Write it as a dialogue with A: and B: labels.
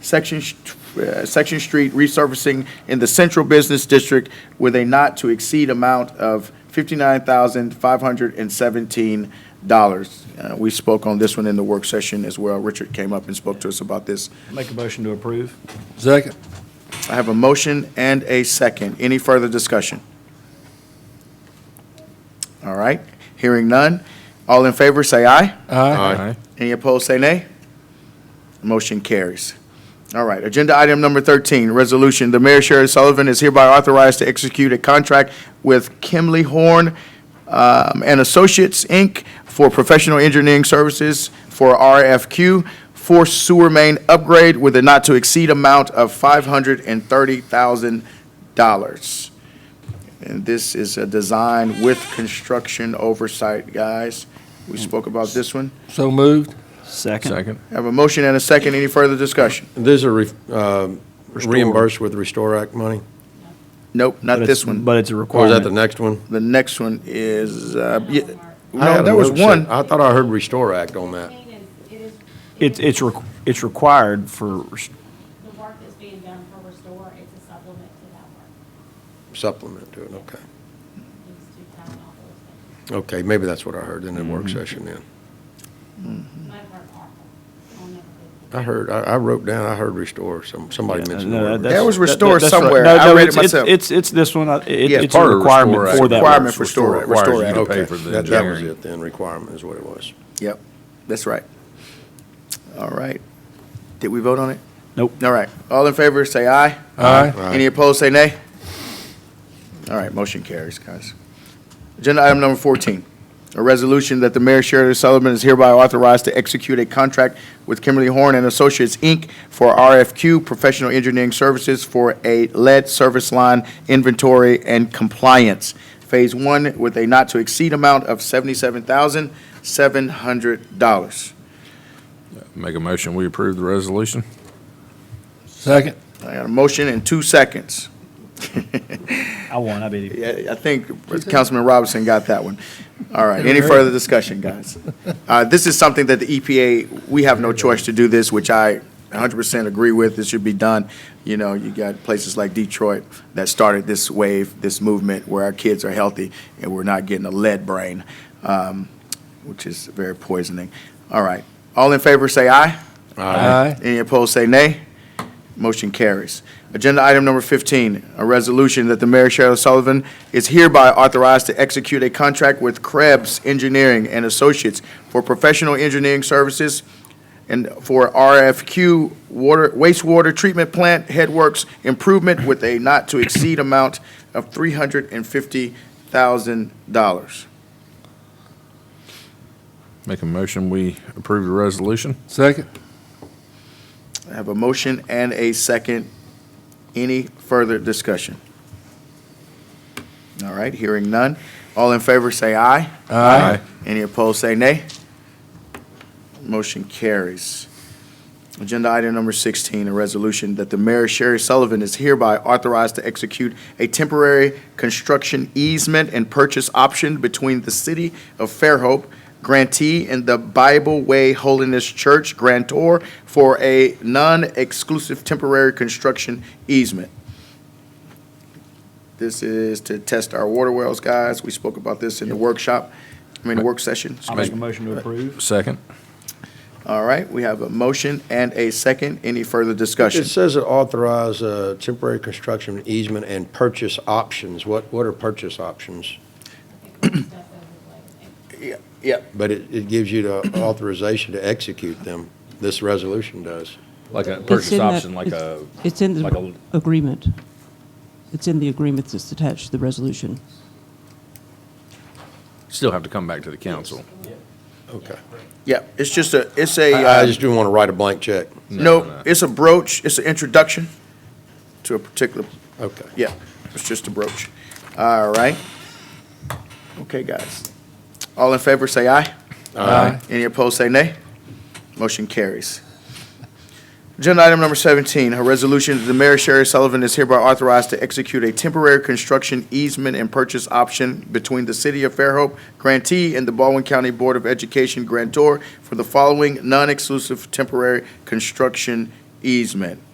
A: Section, Sh- uh, Section Street resurfacing in the Central Business District with a not-to-exceed amount of $59,517. Uh, We spoke on this one in the work session as well. Richard came up and spoke to us about this.
B: Make a motion to approve.
C: Second.
A: I have a motion and a second. Any further discussion? All right, hearing none. All in favor, say aye.
C: Aye.
A: Any opposed, say nay. Motion carries. All right, agenda item number 13, resolution. The mayor, Sherri Sullivan, is hereby authorized to execute a contract with Kimley Horn um, and Associates, Inc., for professional engineering services for RFQ for sewer main upgrade with a not-to-exceed amount of $530,000. And this is a design with construction oversight, guys. We spoke about this one.
C: So moved.
B: Second.
A: Have a motion and a second. Any further discussion?
D: These are re- um, reimbursed with Restore Act money?
A: Nope, not this one.
B: But it's a
D: Or is that
B: requirement.
D: the next one?
A: The next one is, uh, yeah,
D: I
A: no,
D: had
A: there was
D: another
A: one.
D: set. I thought I heard Restore Act on that.
E: It is, it is.
B: It's, it's, requ- it's required for,
E: The work that's being done for Restore, it's a supplement to that work.
D: Supplement to it, okay.
E: These two town all those things.
D: Okay, maybe that's what I heard in the work session then.
E: Might work awful. I'll never do
D: I heard, I I wrote down, I heard Restore, some, somebody
B: Yeah,
D: mentioned. the
B: no,
D: word
B: that's-
A: There was
B: that- that-
A: Restore
B: that's right.
A: somewhere.
B: No,
A: I
B: no,
A: read it
B: it's- it's-
A: myself.
B: It's, it's this one. I- it-
A: Yeah,
B: It's a requirement for that.
A: Requirement for store act.
C: Requires
A: Restore
C: you to
A: act.
C: pay
D: Okay,
C: for the
D: that, that was
C: engineering.
D: it then, requirement is what it was.
A: Yep, that's right. All right. Did we vote on it?
B: Nope.
A: All right. All in favor, say aye.
C: Aye.
D: Aye.
A: Any opposed, say nay. All right, motion carries, guys. Agenda item number 14, a resolution that the mayor, Sheridan Sullivan, is hereby authorized to execute a contract with Kimberly Horn and Associates, Inc. for RFQ Professional Engineering Services for a lead service line inventory and compliance, Phase 1, with a not-to-exceed amount of $77,700.
C: Make a motion, we approve the resolution. Second.
A: I got a motion in two seconds.
B: I won, I beat you.
A: Yeah, I think Councilman Robinson got that one. All right, any
C: Never heard
A: further discussion, guys? Uh, This is something that the EPA, we have no choice to do this, which I 100% agree with, this should be done. You know, you got places like Detroit that started this wave, this movement, where our kids are healthy and we're not getting a lead brain, um, which is very poisoning. All right, all in favor, say aye.
C: Aye.
A: Any opposed, say nay. Motion carries. Agenda item number 15, a resolution that the mayor, Cheryl Sullivan, is hereby authorized to execute a contract with Krebs Engineering and Associates for professional engineering services and for RFQ water, wastewater treatment plant headworks improvement with a not-to-exceed amount of $350,000.
F: Make a motion, we approve the resolution.
C: Second.
A: I have a motion and a second. Any further discussion? All right, hearing none. All in favor, say aye.
C: Aye.
A: Any opposed, say nay. Motion carries. Agenda item number 16, a resolution that the mayor, Sherri Sullivan, is hereby authorized to execute a temporary construction easement and purchase option between the city of Fairhope grantee and the Bible Way Holiness Church grantor for a non-exclusive temporary construction easement. This is to test our water wells, guys. We spoke about this in the workshop, I mean, the work session.
B: I'll make a motion to approve.
F: Second.
A: All right, we have a motion and a second. Any further discussion?
D: It says it authorize uh, temporary construction easement and purchase options. What, what are purchase options?
E: it. It's stuff over the way.
A: Yeah.
D: But it, it gives you the authorization to execute them. This resolution does.
F: Like a
G: It's
F: purchase
G: in that-
F: option, like
G: it's-
F: a,
G: It's in
F: like
G: the
F: a-
G: agreement. It's in the agreement that's attached to the resolution.
F: still have to come back to the council.
D: Okay.
A: Yeah, it's just a, it's a,
D: I I
A: uh,
D: just didn't want to write a blank check.
A: no, it's a brooch, it's an introduction to a particular,
D: Okay.
A: yeah, it's just a brooch. All right. Okay, guys. All in favor, say aye.
C: Aye.
A: Any opposed, say nay. Motion carries. Agenda item number 17, a resolution that the mayor, Sherri Sullivan, is hereby authorized to execute a temporary construction easement and purchase option between the City of Fairhope grantee and the Baldwin County Board of Education grantor for the following non-exclusive temporary construction easement